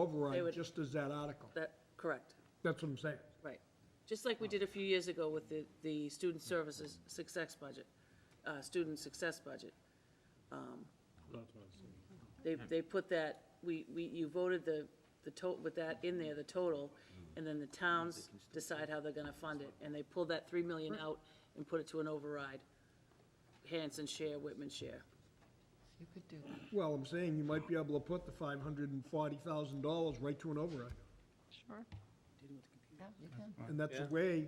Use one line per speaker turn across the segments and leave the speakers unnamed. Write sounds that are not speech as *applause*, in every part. They
override
would-
just as that article.
That, correct,
That's what I'm saying.
right. Just like we did a few years ago with the, the student services success budget, uh, student success budget. Um, They, they put that, we, we, you voted the, the to, with that in there, the total, and then the towns decide how they're gonna fund it, and they pulled that three million out and put it to an override. Hanson share, Whitman share.
You could do that,
Well, I'm saying you might be able to put the five hundred and forty thousand dollars right to an override.
sure. Yeah, you can.
And that's a way,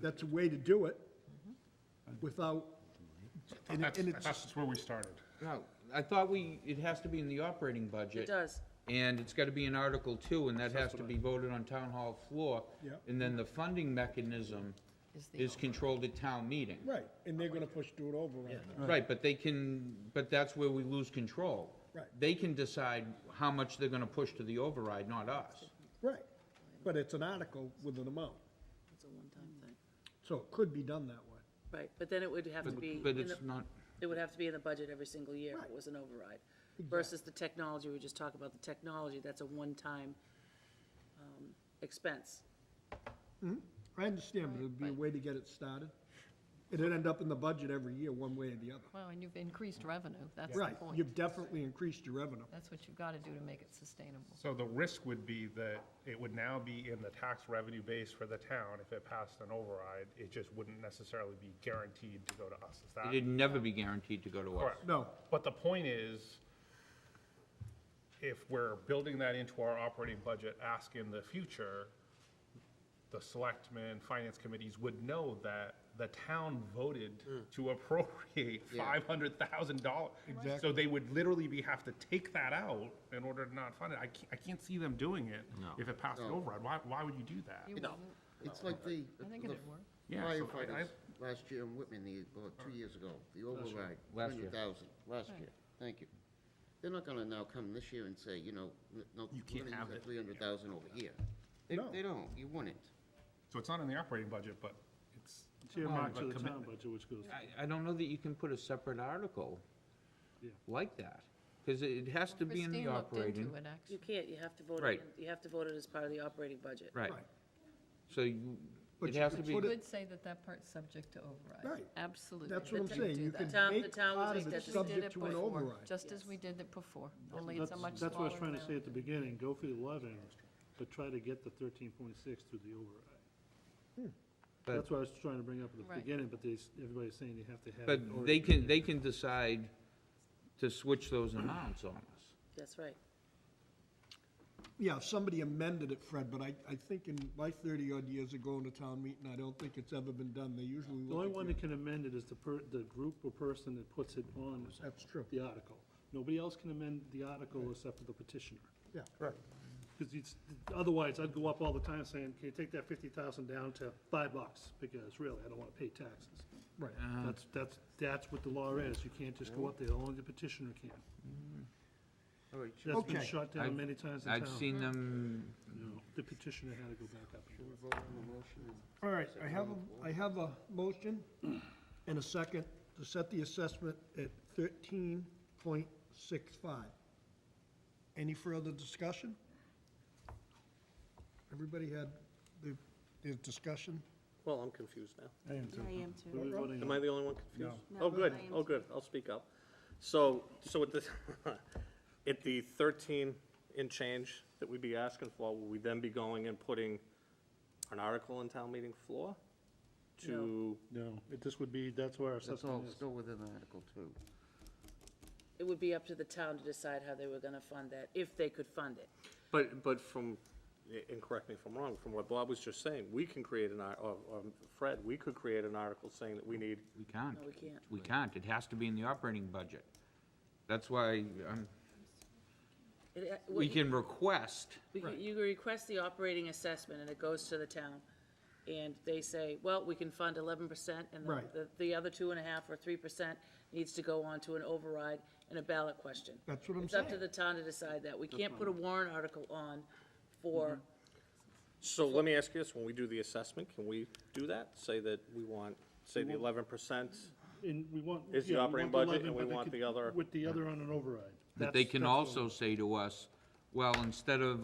that's a way to do it without, and it-
That's,
and
*laughs*
it's,
that's where we started.
No, I thought we, it has to be in the operating budget.
It does.
And it's gotta be in Article Two, and that has to be voted on town hall floor.
Yeah.
And then the funding mechanism
Is the
is controlled at town meeting.
right, and they're gonna push to an override.
Right, but they can, but that's where we lose control.
Right.
They can decide how much they're gonna push to the override, not us.
Right, but it's an article with an amount,
It's a one-time thing.
so it could be done that way.
Right, but then it would have to be.
But
in
it's
the-
not,
It would have to be in the budget every single year if it was an override. Versus the technology, we just talked about the technology, that's a one-time um, expense.
I understand, but it'd be a way to get it started. It'd end up in the budget every year, one way or the other.
Well, and you've increased revenue, that's the
Right,
point.
you've definitely increased your revenue.
That's what you've got to do to make it sustainable.
So the risk would be that it would now be in the tax revenue base for the town if it passed an override. It just wouldn't necessarily be guaranteed to go to us. Is that?
it'd never be guaranteed to go to us.
Correct.
No,
But the point is, if we're building that into our operating budget, ask in the future, the selectmen, finance committees would know that the town voted to appropriate five hundred thousand dollars. So they would literally be, have to take that out in order to not fund it. I can't, I can't see them doing it if it passed an override. Why, why would you do that?
You
No,
wouldn't.
it's like the
I think
the
it'd work.
Yeah, so I-
firefighters last year in Whitman, the, well, two years ago, the override,
Last year.
200,000, last year, thank you. They're not gonna now come this year and say, you know, n- no,
You
we're
can't
gonna
have
use that
it.
300,000 over here. They,
No.
they don't, you wouldn't.
So it's not in the operating budget, but it's.
earmarked
Well, but
to the town
commitment.
budget, which goes,
I, I don't know that you can put a separate article
Yeah.
like that, because it has to be in the
Christine looked
operating.
into it,
You
actually.
can't, you have to vote it,
Right.
in- you have to vote it as part of the operating budget.
Right.
Right.
So you,
But
it
you
has to
could
be,
You
put it-
would say that that part's subject to override.
Right.
Absolutely.
that's what I'm
But you
saying,
do
you
that.
can
Town- the
make
town was
part
like
of it
that.
Just as we did
subject
it
to an
before,
override.
Just as we did it before, only it's
that's,
a much smaller
that's what I was trying to say
amount.
at the beginning, go for the eleven, but try to get the thirteen point six through the override.
But-
That's what I was trying to bring up at the
Right.
beginning, but they, s- everybody's saying you have to have.
but
it or-
they can, they can decide to switch those amounts on us.
That's right.
Yeah, if somebody amended it, Fred, but I, I think in my thirty-odd years of going to town meeting, I don't think it's ever been done. They usually
The only
look
one
at
that
you.
can amend it is the per, the group or person that puts it on
That's true,
the article. Nobody else can amend the article except for the petitioner.
yeah. Right.
Because it's, otherwise, I'd go up all the time saying, can you take that fifty thousand down to five bucks? Because really, I don't want to pay taxes.
Right.
Uh,
That's, that's, that's what the law is. You can't just go up there, only the petitioner can. That's been
Okay.
shot down many times in town.
I've seen them,
No, The petitioner had to go back up. and do it.
All right, I have, a I have a motion and a second to set the assessment at thirteen point six five. Any further discussion? Everybody had the, the discussion?
Well, I'm confused now.
I am
What are we
too.
voting
Am
on?
I the only one confused?
No.
Oh,
No,
good,
I am
oh, good, I'll speak up. So, so at the, *laughs* at the 13 in change that we'd be asking for, will we then be going and putting an article in town meeting floor? To,
No, it- this would be, that's where our
That's all
assessment is.
still within Article 2.
It would be up to the town to decide how they were gonna fund that, if they could fund it.
but, but from, and correct me if I'm wrong, from what Bob was just saying, we can create an, ar- or or Fred, we could create an article saying that we need,
we can't.
No, we can't.
We can't, it has to be in the operating budget. That's why, um,
It, uh, what
we
you-
can request,
We can- You request the operating assessment, and it goes to the town, and they say, well, we can fund eleven percent, and the-
Right.
the, the other two and a half or three percent needs to go on to an override and a ballot question.
That's what I'm
It's up to
saying.
the town to decide that. We can't put a warrant article on
Mm-hmm.
for,
so let me ask you this, when we do the assessment, can we do that? Say that we want, say the 11%?
And we want.
It's the
yeah, we
operating
want the 11,
budget, and we
but they
want
could-
the other-
With the other on an override.
but they
That's-
can
that's all.
also say to us, well, instead of